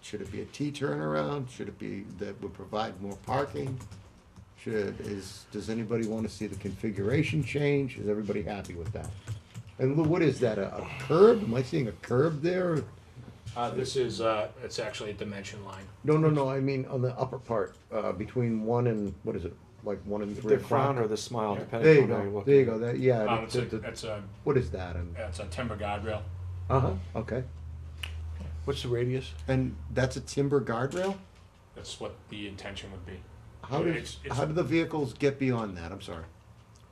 Should it be a T turnaround? Should it be that would provide more parking? Should, is, does anybody wanna see the configuration change? Is everybody happy with that? And Lou, what is that, a a curb? Am I seeing a curb there? Uh, this is, uh, it's actually a dimension line. No, no, no, I mean on the upper part, uh, between one and, what is it, like one and three The frown o'clock? or the smile, There depending you on how you go, look. there you go, that, yeah. Um, it's Uh, the- a, the- it's a, What is that? And- it's a timber guardrail. Uh-huh, okay. What's the radius? And that's a timber guardrail? That's what the intention would be. How did, It's- it's- how do the vehicles get beyond that? I'm sorry.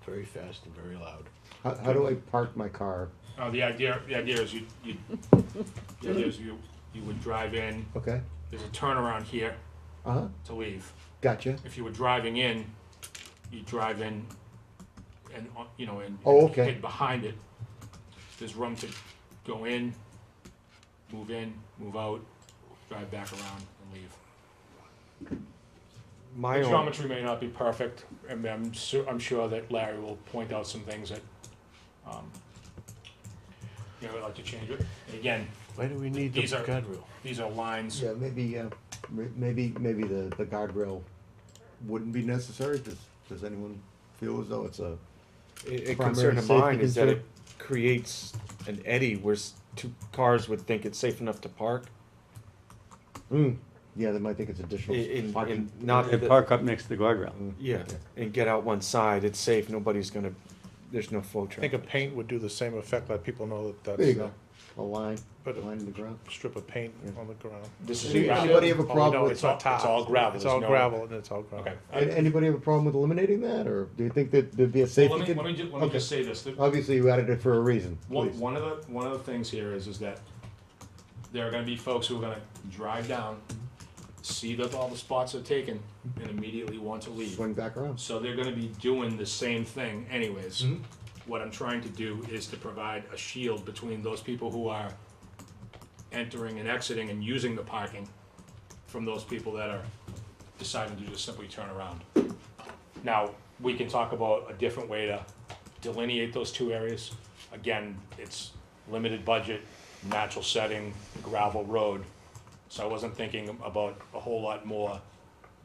Very fast and very loud. How, how do I park my car? Uh, the idea, the idea is you, you, the idea is you, you would drive in, Okay, there's a turnaround here uh-huh, to leave. gotcha. If you were driving in, you drive in and, uh, you know, and. Oh, okay. Hit behind it. There's room to go in, move in, move out, drive back around and leave. My The own, geometry may not be perfect, and I'm su- I'm sure that Larry will point out some things that, um, you know, I'd like to change it. And Again, Why do we need the These are- guardrail? these are lines, Yeah, maybe, uh, m- maybe, maybe the, the guardrail wouldn't be necessary. Does, does anyone feel as though it's a, a a primary concern of safety mine is that it concern. creates an eddy where s- two cars would think it's safe enough to park. mm, yeah, they might think it's additional And, parking. and not, They that- park up next to the guardrail. yeah, and get out one side, it's safe, nobody's gonna, there's no flow I think a traffic. paint would do the same effect, let people know that There you that's go, a a line, But- line in the ground. strip of paint on the ground. this is. Any- gravel. Anybody have a Oh, problem no, with, Uh, It's not It's top. all gravel, It's there's all no- gravel and it's all gravel. Okay. an- anybody have a problem with eliminating that, or do you think that there'd be a Well, safety? let me, con- let me ju- let me Okay. just say this, that Obviously, you added it for a reason, one, please. one of the, one of the things here is, is that there are gonna be folks who are gonna drive down, see that all the spots are taken, and immediately want to leave. Swing back around. So they're gonna be doing the same thing anyways. What I'm trying to do is to provide a shield between those people who are entering and exiting and using the parking from those people that are deciding to just simply turn around. Now, we can talk about a different way to delineate those two areas. Again, it's limited budget, natural setting, gravel road. So I wasn't thinking about a whole lot more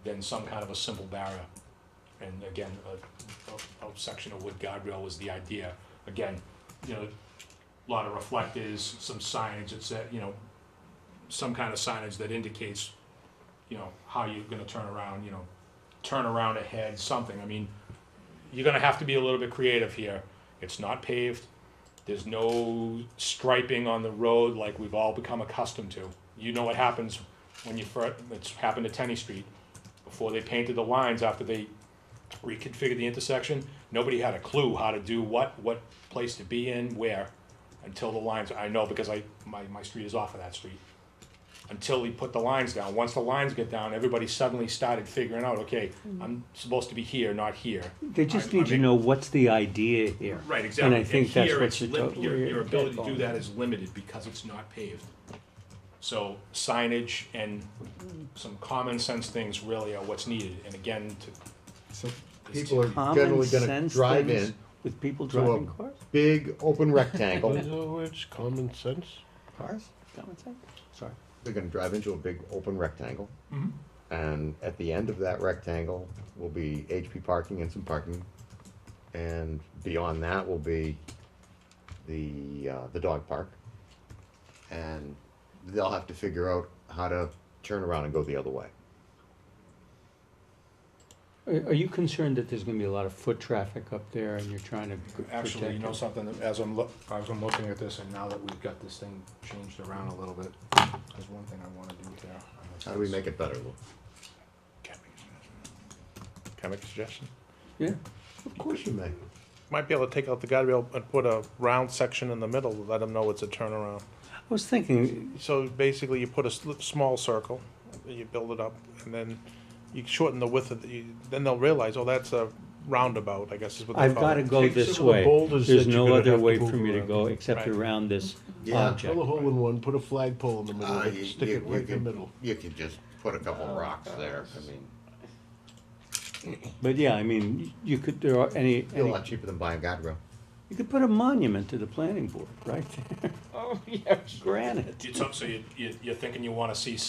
than some kind of a simple barrier. And again, a, a, a section of wood guardrail was the idea. Again, you know, a lot of reflectors, some signage that said, you know, some kind of signage that indicates, you know, how you're gonna turn around, you know, turn around ahead, something. I mean, you're gonna have to be a little bit creative here. It's not paved. There's no striping on the road like we've all become accustomed to. You know what happens when you first, it's happened to Tenny Street. Before they painted the lines after they reconfigured the intersection, nobody had a clue how to do what, what place to be in, where, until the lines, I know because I, my, my street is off of that street. Until we put the lines down. Once the lines get down, everybody suddenly started figuring out, okay, I'm supposed to be here, not here. They just I- I need to mean- know what's the idea here. Right, exactly. And I think that's here what it's you're lim- talking. Your, your ability to do that is limited because it's not paved. So signage and some common sense things really are what's needed, and again, to, So people are Common generally gonna sense drive things in With people to a- driving cars? big open rectangle. Those words, common sense. Cars? Common sense? Sorry. They're gonna drive into a big open rectangle. Mm-hmm. And at the end of that rectangle will be HP parking and some parking. And beyond that will be the, uh, the dog park. And they'll have to figure out how to turn around and go the other way. Are, are you concerned that there's gonna be a lot of foot traffic up there and you're trying to g- actually, you protect know it? something, that as I'm look, as I'm looking at this, and now that we've got this thing changed around a little bit, there's one thing I wanna do there. How do we make it better, Lou? Can I make a suggestion? Yeah, Of course you may. Might be able to take out the guardrail and put a round section in the middle, to let them know it's a turnaround. I was thinking, So basically, you put a sl- small circle, you build it up, and then you shorten the width of the, you- then they'll realize, oh, that's a roundabout, I guess is what they I've call gotta it. go Take this some of the way. boulders There's that you're no gonna other have to way move for me to around. go except Right. around this Yeah. object. Drill a hole in one, put a flagpole in the middle, Uh, of you- it, stick you- it you right in the could- middle. You could just put a couple rocks there, I mean, But yeah, I mean, you could, there are any, it'd be a any, lot cheaper than buying a guardrail. you could put a monument to the planning board right there. Oh, yeah, granite. You took- so you, you, you're thinking you wanna see